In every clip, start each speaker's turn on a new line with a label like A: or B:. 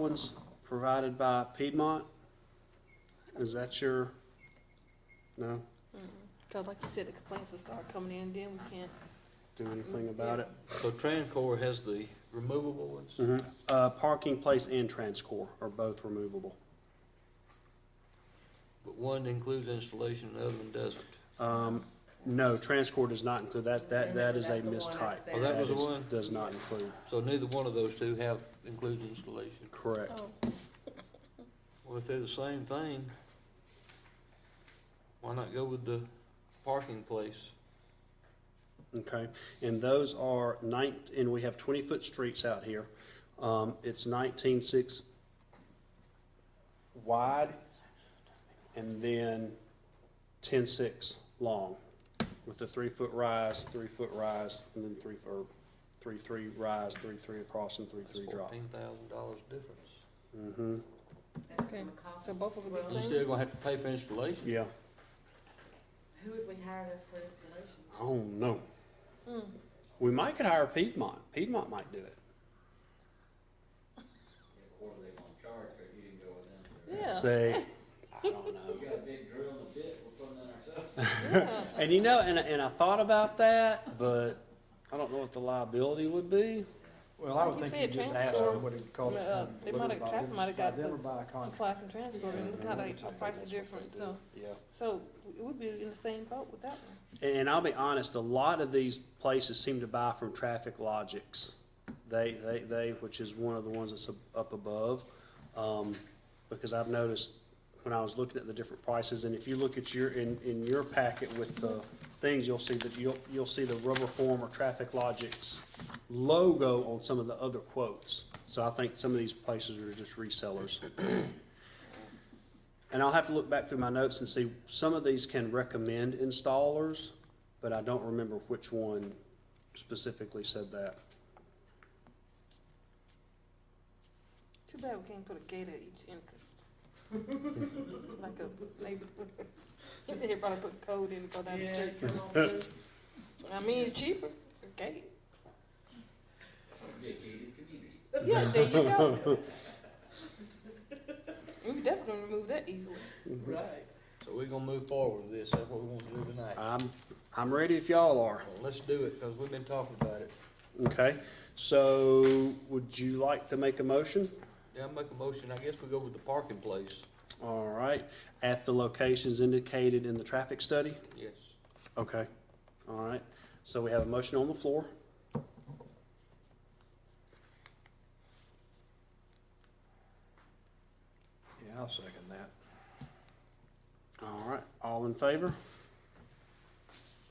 A: ones provided by Piedmont? Is that your, no,
B: Cause like you said, the complaints will start coming in, then we can't.
A: do anything about it?
C: So Trancor has the removable ones?
A: Mhm. Uh, parking place and Transcore are both removable.
C: But one includes installation, and the other one doesn't.
A: Um, no, Transcore does not include, that, that, that is a
D: Remember, that's the one I
A: mistype.
D: said.
C: Oh, that was the
A: is-
C: one?
A: Does not include,
C: So neither one of those two have includes installation.
A: correct.
C: Well, if they're the same thing, why not go with the parking place?
A: Okay, and those are nine, and we have twenty-foot streets out here. Um, it's nineteen six wide and then ten-six long with a three-foot rise, three-foot rise, and then three, or three-three rise, three-three across and three-three drop.
C: Fourteen thousand dollars difference.
A: Mm-hmm,
D: And it's gonna cost
B: So both of them
D: us-
B: the
C: You
D: well,
B: same?
C: still gonna have to pay for installation.
A: yeah.
D: Who would we hire for installation?
A: Oh, no. We might could hire Piedmont. Piedmont might do it.
E: Or they gonna charge for it, you didn't go with them.
B: Yeah,
A: Say, I don't know.
E: We got a big drill in the pit, we're putting in ourselves.
B: yeah.
A: And you know, and, and I thought about that, but I don't know what the liability would be.
F: Well, I
B: Like
F: would
B: you
F: think
B: said,
F: you just ask
B: transport-
F: them what it costs.
B: Uh, they might have- traffic might have got
F: By them
B: the
F: or by a contract.
B: Supply and transport, and look how they, our prices different, so,
A: Yeah.
B: so it would be in the same boat with that one.
A: And I'll be honest, a lot of these places seem to buy from Traffic Logics. They, they, they, which is one of the ones that's up- up above. Um, because I've noticed when I was looking at the different prices, and if you look at your, in, in your packet with the things, you'll see that you'll, you'll see the rubber form or Traffic Logics logo on some of the other quotes. So I think some of these places are just resellers. And I'll have to look back through my notes and see, some of these can recommend installers, but I don't remember which one specifically said that.
B: Too bad we can't put a gate at each entrance. Like a, maybe, everybody put code in and go down the
D: Yeah,
B: street.
D: come on through.
B: I mean, it's cheaper, it's a gate.
E: Dedicated community.
B: Yeah, there you go. We can definitely remove that easily.
D: Right.
C: So we're gonna move forward with this, that's what we want to do tonight.
A: I'm, I'm ready if y'all are.
C: Well, Let's do it, because we've been talking about it.
A: Okay, so would you like to make a motion?
C: Yeah, I make a motion, I guess we go with the parking place.
A: All right, at the locations indicated in the traffic study?
C: Yes.
A: Okay, all right. So we have a motion on the floor.
F: Yeah, I'll second that.
A: All right, all in favor?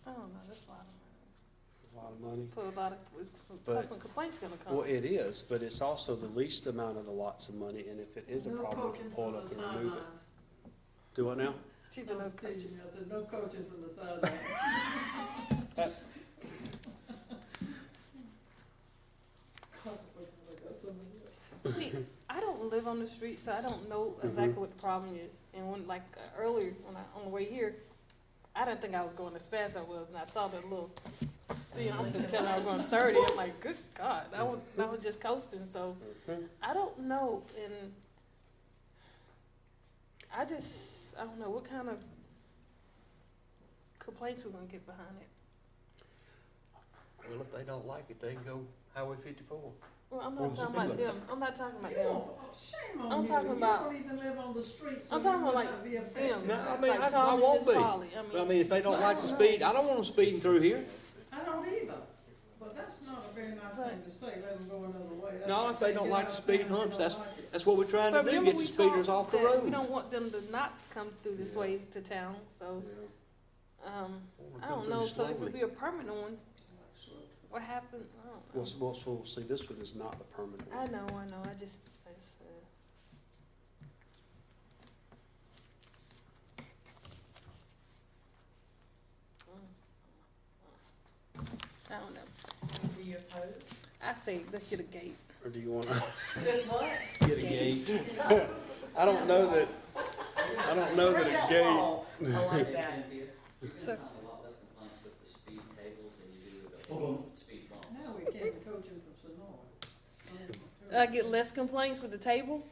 B: I don't know, that's a lot of
A: A lot of money.
B: money. Put a lot of, plus some complaints gonna come.
A: Well, it is, but it's also the least amount of the lots of money, and if it is a problem, we can pull it up and remove it. Do what now?
B: She's a little crazy.
D: no coaching from the sideline.
B: See, I don't live on the street, so I don't know
A: Mm-hmm.
B: exactly what the problem is. And when, like uh, earlier, when I on the way here, I didn't think I was going as fast as I was, and I saw that little. See, I'm just telling I was going 30. I'm like, good God, I was I was just coasting. So I don't know, and I just I don't know what kind of complaints we're gonna get behind it.
C: Well, if they don't like it, they can go Highway fifty-four.
B: Well, I'm
F: Well,
B: not talking about
C: speak
B: them. I'm not talking about
D: You
B: them.
D: don't- Shame
B: I'm
D: on you,
B: talking
D: you
B: about-
D: don't even live on the street, so
B: I'm
D: you
B: talking about
D: must
B: like
D: not be
B: them.
D: affected.
C: No, I mean,
B: like
C: I- I
B: Tom and
C: won't
B: Miss
C: be.
B: Polly. I mean,
C: But I mean, if they don't like to speed, I don't want them speeding through here.
D: I don't either, but that's not a very nice thing to say, let them go another way. That's
C: No,
D: like
C: if they
D: saying,
C: don't
D: "Get
C: like
D: out
C: the
D: of
C: speeding
D: town if you
C: humps,
D: don't
C: that's,
D: like it."
C: that's what we're trying to
B: But
C: do,
B: remember
C: get the
B: we
C: speeders
B: talked
C: off the
B: that We
C: road.
B: don't want them to not come through this
A: Yeah.
B: way to town, so, um, I don't know, so if it be a permanent one, what happened, I
A: Well,
B: don't
A: s-
B: know.
A: well, s- well, see, this one is not the permanent
B: I
A: one.
B: know, I know, I just, I just, uh. I don't know,
D: Do you oppose?
B: I say, let's get a gate.
A: Or do you want to?
D: That's what?
C: Get a gate.
A: I don't know that, I don't know that a gate.
D: I like that.
E: You're gonna
B: So-
E: find a lot less complaints with the speed tables than you do with the speed bumps.
D: Now we can't coach him from Sonora.
B: I get less complaints with the table.